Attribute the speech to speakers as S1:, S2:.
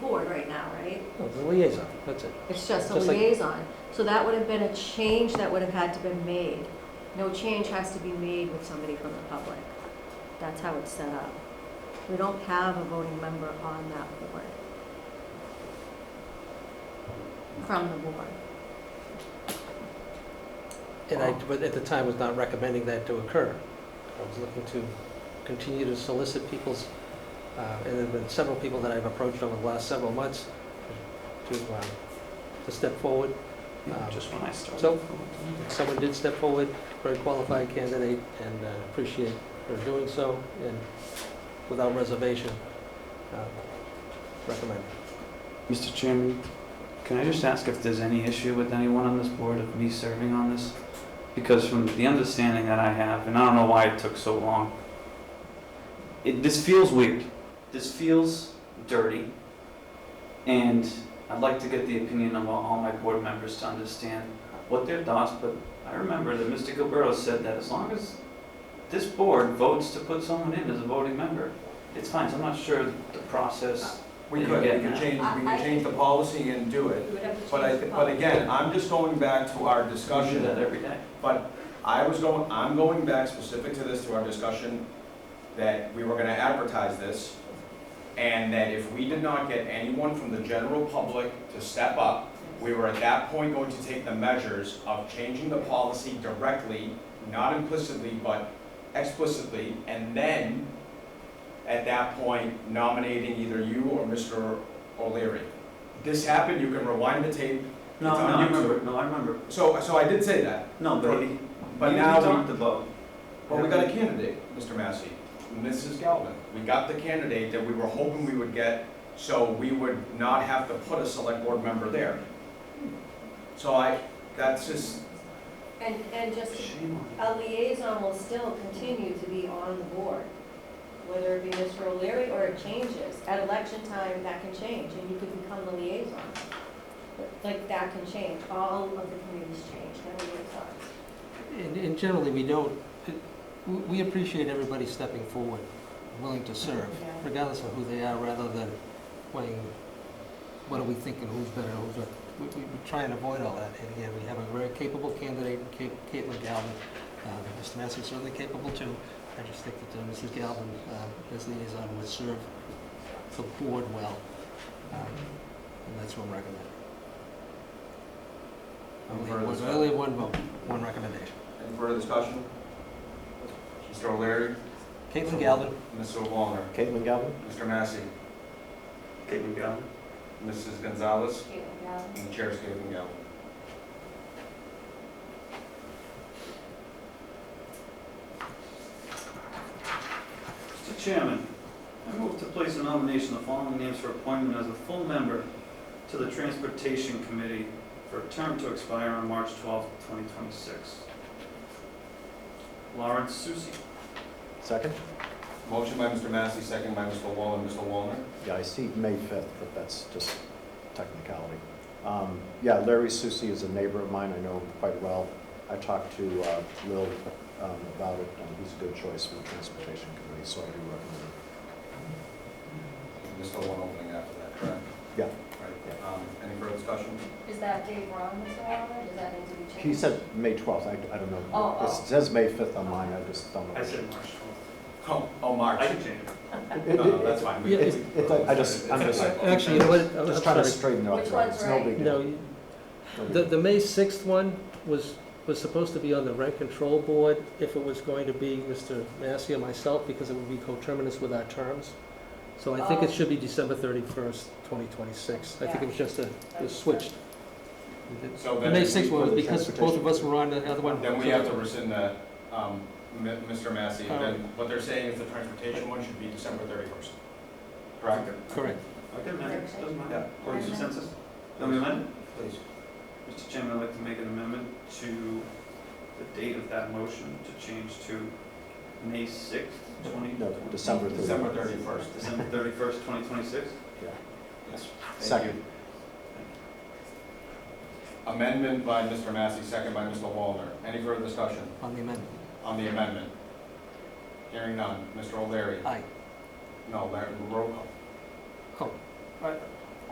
S1: No, Oh, the liaison, that's it.
S2: It's just a
S1: Just like-
S2: liaison. So that would have been a change that would have had to been made. No change has to be made with somebody from the public. That's how it's set up. We don't have a voting member on that board. From the board.
S1: And I, but at the time, was not recommending that to occur. I was looking to continue to solicit people's, uh, and there have been several people that I've approached over the last several months to, um, to step forward. Um,
S3: Just when I started.
S1: so- Someone did step forward, very qualified candidate, and uh, appreciate her doing so, and without reservation, um, recommend.
S3: Mr. Chairman, can I just ask if there's any issue with anyone on this board of me serving on this? Because from the understanding that I have, and I don't know why it took so long, it, this feels weird. This feels dirty. And I'd like to get the opinion of all all my board members to understand what their thoughts, but I remember that Mr. Gilberto said that as long as this board votes to put someone in as a voting member, it's fine. So I'm not sure the process.
S4: We
S3: Yeah,
S4: could,
S3: yeah,
S4: we could
S3: yeah.
S4: change, we
S2: I- I
S4: could change the policy and do it. But I, thi- but
S2: But
S4: again, I'm just going back to
S3: I
S4: our
S3: do
S4: discussion,
S3: that every day.
S4: but I was going, I'm going back specific to this, to our discussion, that we were gonna advertise this, and that if we did not get anyone from the general public to step up, we were at that point going to take the measures of changing the policy directly, not implicitly, but explicitly, and then, at that point, nominating either you or Mr. O'Leary. This happened, you can rewind the tape.
S3: No,
S4: It's
S3: no,
S4: on
S3: I
S4: YouTube.
S3: remember, no, I remember.
S4: So, so I did say that.
S3: No, but he,
S4: But
S3: he
S4: now we-
S3: talked about.
S4: Well, we got a candidate, Mr. Massey, Mrs. Galvin. We got the candidate that we were hoping we would get, so we would not have to put a select board member there. So I, that's just,
S2: And, and just,
S3: Shame on
S2: a liaison will still continue to be on the board, whether it be Mr. O'Leary or it changes. At election time, that can change, and you could become the liaison. Like, that can change, all of the committees change, no liaisons.
S1: And and generally, we don't, we- we appreciate everybody stepping forward, willing to serve,
S2: Yeah.
S1: regardless of who they are, rather than weighing, what do we think and who's better, who's not. We- We we try and avoid all that, and again, we have a very capable candidate, Ca- Caitlin Galvin. Um, Mr. Massey certainly capable too. I just think that uh, Mrs. Galvin, uh, as liaison, would serve the board well. Um, And that's what I'm recommending.
S4: Any
S1: Only
S4: further
S1: one-
S4: discussion?
S1: Only one vote, one recommendation.
S4: any further discussion? Mr. O'Leary,
S1: Caitlin Galvin,
S4: Mr. Wallner,
S5: Caitlin Galvin?
S4: Mr. Massey,
S3: Caitlin Galvin.
S4: Mrs. Gonzalez,
S2: Caitlin Galvin.
S4: and the chair's Caitlin Galvin.
S3: Mr. Chairman, I move to place a nomination of the following names for appointment as a full member to the Transportation Committee for a term to expire on March twelfth, twenty twenty-six. Lawrence Susi.
S5: Second?
S4: Motion by Mr. Massey, second by Mr. Wallner, Mr. Wallner.
S5: Yeah, I see May 5th, but that's just technicality. Um, Yeah, Larry Susi is a neighbor of mine, I know him quite well. I talked to uh, Lil um, about it, and he's a good choice for the Transportation Committee, so I do recommend him.
S4: There's still one opening after that, correct?
S5: Yeah.
S4: Right. Um, Any further discussion?
S2: Is that Dave Ron, Mr. Wallner, does that need to be changed?
S5: He said May 12th, I I don't know.
S2: Oh, oh.
S5: It says May 5th on mine, I just don't know.
S3: I said March twelfth.
S4: Oh, oh, March.
S3: I can change it.
S5: It-
S4: No, no,
S5: it-
S4: that's fine. We-
S1: Yeah, it's-
S4: we-
S5: it- I just- I'm
S4: It's-
S5: just-
S4: it's-
S1: actually, you know what, I'm
S5: Just trying to
S1: sorry.
S5: straighten it out.
S2: Which one's
S5: It's no
S2: right?
S5: big
S1: No,
S5: deal.
S1: you-
S5: No big
S1: the,
S5: deal.
S1: the May 6th one was, was supposed to be on the rent control board if it was going to be Mr. Massey or myself, because it would be coterminous with our terms. So I think it
S2: Oh.
S1: should be December 31st, 2026. I think it was just a, it was switched.
S4: So
S1: The
S4: then,
S1: May
S4: if
S1: 6th
S4: we-
S1: one was
S5: for the
S1: because both of us were on the other one.
S4: then we have to rescind that, um, M- Mr. Massey, then what they're saying is the transportation one should be December thirty-first. Correct?
S1: Correct.
S3: Okay, man, it doesn't
S4: Yeah.
S3: matter. Or consensus? Then we amend?
S4: Please.
S3: Mr. Chairman, I'd like to make an amendment to the date of that motion to change to May 6th, 20...
S5: No, December 31st.
S4: December thirty-first.
S3: December 31st, 2026?
S4: Yes. Thank you.
S5: Second.
S4: Amendment by Mr. Massey, second by Mr. Wallner. Any further discussion
S1: On the amendment.
S4: on the amendment? Hearing none. Mr. O'Leary?
S1: Aye.
S4: No, Larry, roll call.
S1: Oh, I-